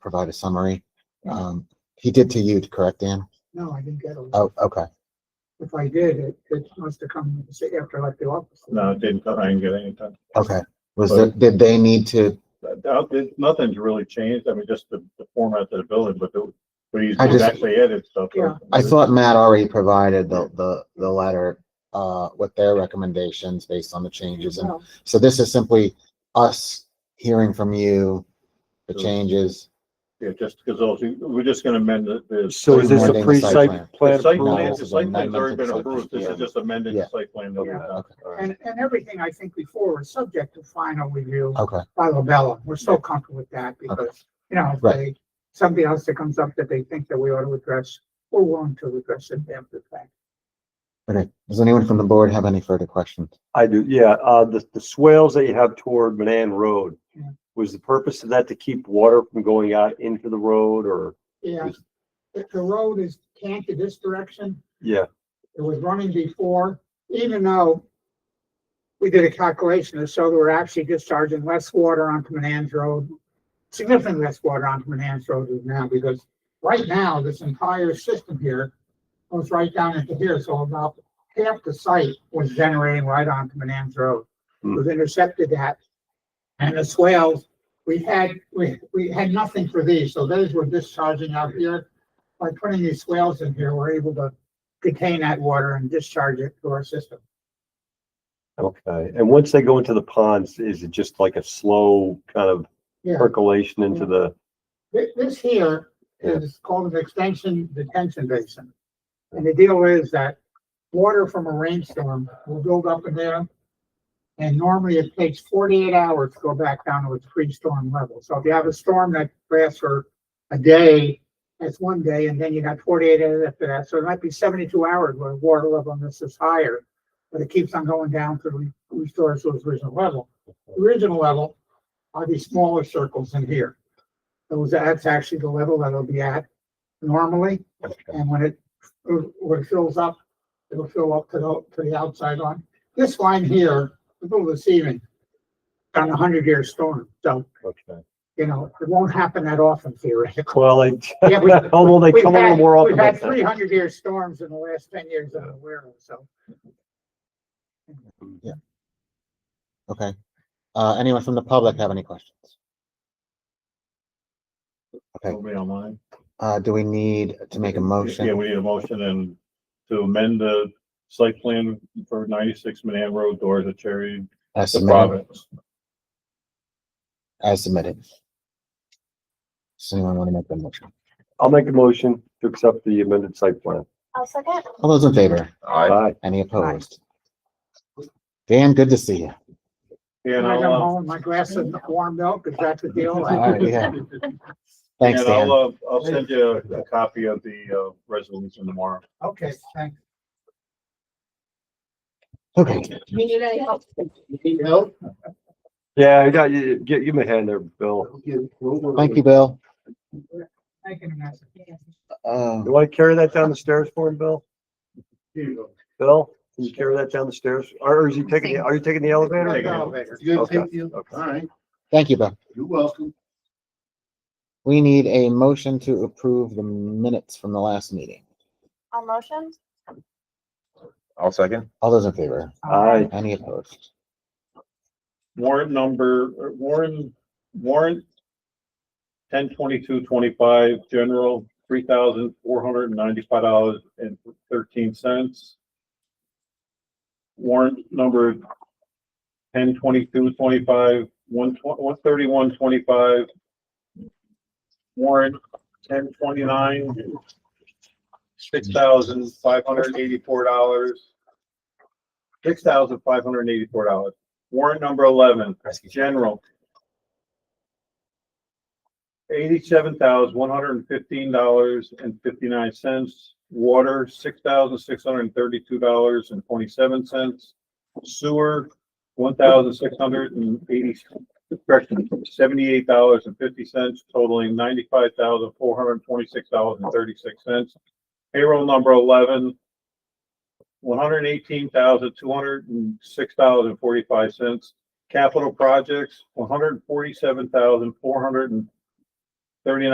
provide a summary. Um, he did to you, correct, Dan? No, I didn't get a letter. Oh, okay. If I did, it, it must have come say, after I left the office. No, it didn't, I didn't get any time. Okay. Was there, did they need to, But, uh, it- Nothing's really changed, I mean, just the, the format of the building, but the, but he's I just- actually added stuff. Yeah. I thought Matt already provided the, the, the letter, uh, with their recommendations based on the changes. And No, so this is simply us hearing from you, the changes. Yeah, just because those, we're just gonna amend the, the. So is this a Amending the site plan. pre-site plan The site approval? plan, approval? the site plan's already been approved, this Yeah. is just amended Yeah. the site plan. that we Yeah. have. Okay. All right. And, and everything I think before was subject to final review Okay, by Lobella. We're so comfortable with that because, you know, if Right. they, something else that comes up that they think that we ought to address, we're willing to address it after the fact. okay. Does anyone from the board have any further questions? I do, yeah, uh, the, the swales that you have toward Manan Road, Yeah. was the purpose of that to keep water from going out into the road or, Yeah, the, the road is canted this direction. yeah, it was running before, even though we did a calculation to show that we're actually discharging less water onto Manans Road, significantly less water onto Manans Road than now, because right now, this entire system here goes right down into here, so about half the site was generating right onto Manans Road. Hmm. We've intercepted that. And the swales, we had, we, we had nothing for these, so those were discharging out here. By putting these swales in here, we're able to contain that water and discharge it to our system. okay. And once they go into the ponds, is it just like a slow kind of Yeah, percolation into the, thi- this here is called an extension detention basin. And the deal is that water from a rainstorm will build up in there. And normally it takes forty-eight hours to go back down to its pre-storm level. So if you have a storm that lasts for a day, that's one day, and then you got forty-eight hours after that. So it might be seventy-two hours where the water level on this is higher. But it keeps on going down to re- restore its original level. Original level are these smaller circles in here. Those, that's actually the level that it'll be at normally, and when it, when it fills up, it'll fill up to the, to the outside line. This line here, a little deceiving, on a hundred year storm, so, okay. you know, it won't happen that often theoretically. Well, I, Yeah, we- although Oh, they We've come on had, more we've often. had than three hundred year storms in the last ten years that I'm aware of, so. Okay. Uh, anyone from the public have any questions? Okay. It'll be online. Uh, do we need to make a Yeah, motion? we need a motion and to amend the site plan for ninety-six Manan Road, doors at Cherry, As the submitted, Province. as submitted. Does anyone want to make the motion? I'll make a motion to accept the amended site plan. I'll second. All those in favor? Aye. Any opposed? Dan, good to see you. When And I come I'll, uh, home, my glass of warm milk, is that the deal? All right, yeah. Thanks, and I'll, Dan. uh, I'll send you a- a copy of the, uh, resolution tomorrow. Okay, thanks. Okay, Bill? Yeah, I got you, give, give me a hand there, Bill. thank you, Bill. Thank you, Vanessa. Uh, You want to carry that down the stairs for him, Bill? Here you go. Bill, can you carry that down the stairs? Or is he taking, the? are you taking the elevator? Take it. Good, Okay, thank you. All okay. right, thank you, Bill. you're welcome. We need a motion to approve the minutes from the last meeting. On motion? I'll second. All those in favor? Aye. Any opposed? warrant number, or warrant, warrant ten twenty-two twenty-five, general, three thousand four hundred and ninety-five dollars and thirteen cents. Warrant number ten twenty-two twenty-five, one tw- one thirty-one twenty-five. Warrant ten twenty-nine, six thousand five hundred and eighty-four dollars. Six thousand five hundred and eighty-four dollars. Warrant number eleven, general. Eighty-seven thousand, one hundred and fifteen dollars and fifty-nine cents. Water, six thousand, six hundred and thirty-two dollars and twenty-seven cents. Sewer, one thousand, six hundred and eighty, correction, seventy-eight dollars and fifty cents totaling ninety-five thousand, four hundred and twenty-six dollars and thirty-six cents. Payroll number eleven, one hundred eighteen thousand, two hundred and six dollars and forty-five cents. Capital projects, one hundred forty-seven thousand, four hundred and thirty-nine